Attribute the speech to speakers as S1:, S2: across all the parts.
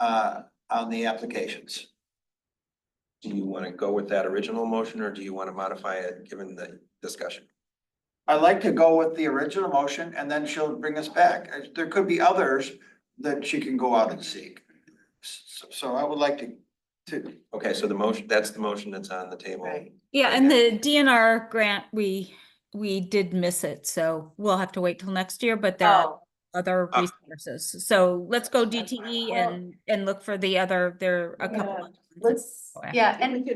S1: uh, on the applications.
S2: Do you want to go with that original motion or do you want to modify it given the discussion?
S1: I like to go with the original motion and then she'll bring us back. Uh, There could be others that she can go out and seek. So, so I would like to, to,
S2: Okay, so the motion, that's the motion that's on the table.
S3: Right.
S4: Yeah, and the DNR grant, we, we did miss it, so we'll have to wait till next year, but there are
S3: Oh,
S4: other
S2: Ah.
S4: resources. So let's go DTE
S3: Well-
S4: and, and look for the other, there are a couple.
S3: Yeah,
S4: of ones.
S3: let's,
S4: Okay.
S3: yeah, and,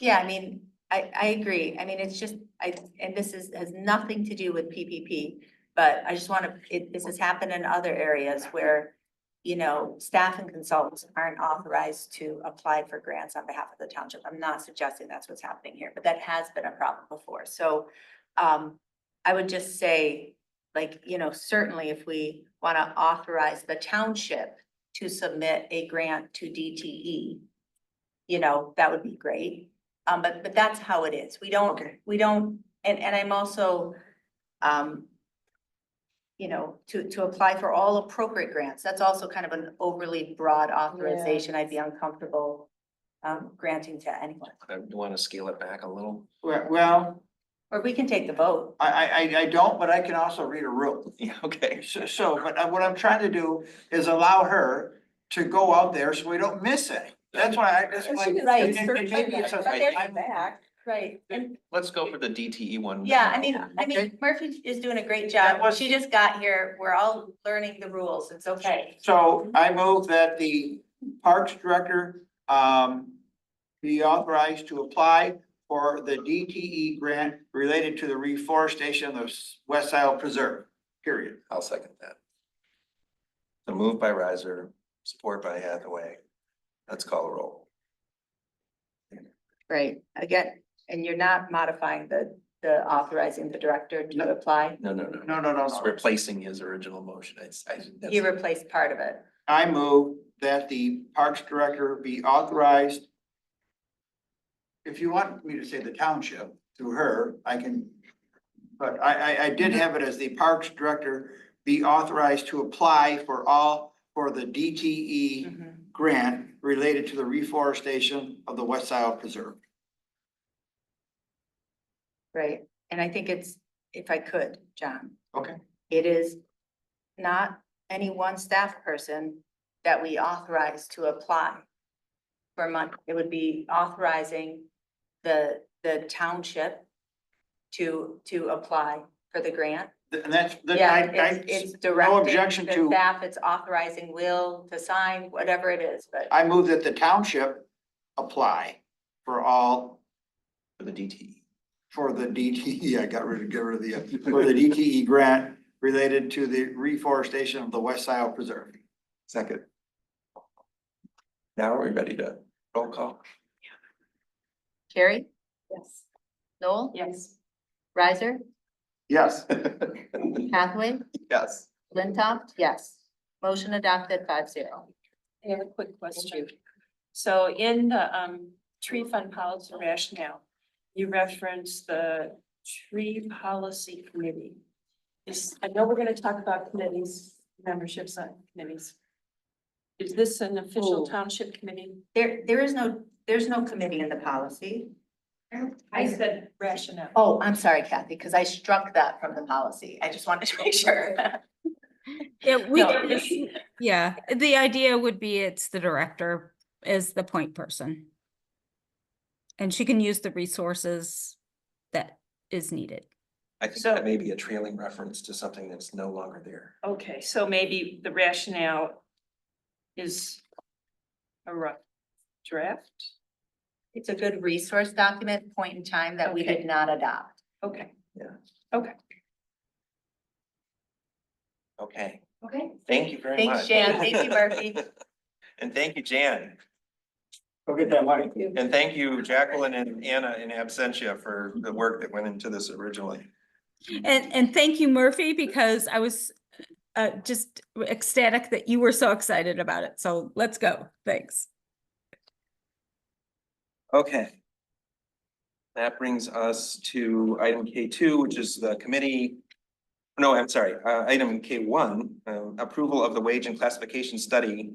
S3: yeah, I mean, I, I agree. I mean, it's just, I, and this is, has nothing to do with PPP. But I just want to, it, this has happened in other areas where, you know, staff and consultants aren't authorized to apply for grants on behalf of the township. I'm not suggesting that's what's happening here, but that has been a problem before. So um, I would just say, like, you know, certainly if we want to authorize the township to submit a grant to E, DTE, you know, that would be great. Um, but, but that's how it is. We don't, we don't, and, and I'm also, um, you know, to, to apply for all appropriate grants. That's also kind of an overly broad authorization. I'd be uncomfortable um, granting to anyone.
S2: I want to scale it back a little.
S1: well,
S3: Or we can take the vote.
S1: I, I, I, I don't, but I can also read a rule.
S2: Yeah, okay.
S1: So, so, but I- what I'm trying to do is allow her to go out there so we don't miss any. That's why I, that's why.
S3: Right.
S1: and- and- and maybe it's a-
S2: But there's
S1: I'm-
S3: Right.
S2: Let's go for the DTE one.
S3: Yeah, I mean, I
S1: Okay.
S3: mean, Murphy is doing a great
S1: That
S3: job.
S1: was-
S3: She just got here. We're all learning the rules. It's okay.
S1: So I move that the Parks Director um be authorized to apply for the DTE grant related to the reforestation of the West Isle Preserve, period.
S2: I'll second that. The move by riser, support by Hathaway. Let's call a roll.
S3: Right, again, and you're not modifying the, the authorizing the director
S1: No.
S3: to apply.
S2: No, no, no.
S1: No, no, no,
S2: It's
S1: no.
S2: replacing his original motion. It's, I, that's-
S3: You replaced part of it.
S1: I move that the Parks Director be authorized. If you want me to say the township through her, I can. But I, I, I did have it as the Parks Director be authorized to apply for all, for the E DTE
S3: Mm-hmm.
S1: grant related to the reforestation of the West Isle Preserve.
S3: Right, and I think it's, if I could, John.
S1: Okay.
S3: It is not any one staff person that we authorize to apply for money. It would be authorizing the, the township to, to apply for the grant.
S1: Th- And that's, that
S3: Yeah,
S1: I,
S3: it's,
S1: I,
S3: it's directing.
S1: objection
S3: the
S1: to-
S3: Staff, it's authorizing Will to sign, whatever it is, but.
S1: I move that the township apply for all,
S2: for the E. DTE.
S1: for the DTE, I got rid of, get rid of the, for the DTE grant related to the reforestation of the West Isle Preserve.
S2: Second. Now are we ready to roll call?
S3: Carrie? Yes. Noel? Yes. Riser?
S1: Yes.
S3: Hathaway?
S2: Yes.
S3: Flintoff? Yes. Motion adopted five zero.
S5: I have a quick question. So in the um tree fund policy rationale, you reference the tree policy committee. Is, I know we're gonna talk about committees, memberships on committees. Is this an official
S3: Oh.
S5: township committee?
S3: There, there is no, there's no committee in the policy.
S5: I said rationale.
S3: Oh, I'm sorry Kathy, because I struck that from the policy. I just wanted to make sure.
S4: Yeah, we,
S5: No,
S4: did this- yeah, the idea would be it's the director is the point person. And she can use the resources that is needed.
S2: I think
S5: So-
S2: that may be a trailing reference to something that's no longer there.
S5: Okay, so maybe the rationale is a rough draft?
S3: It's a good resource document, point in time that we did
S5: Okay.
S3: not adopt.
S5: Okay,
S2: Okay,
S3: Okay.
S2: thank you very much.
S3: Thanks, Jan. Thank you, Murphy.
S2: And thank you, Jan.
S1: Go get that money.
S2: And thank you, Jacqueline and Anna in absentia for the work that went into this originally.
S4: And, and thank you Murphy, because I was uh, just ecstatic that you were so excited about it. So let's go. Thanks.
S2: Okay. That brings us to item K two, which is the committee. uh, No, I'm sorry, uh, item K one, um, approval of the wage and classification study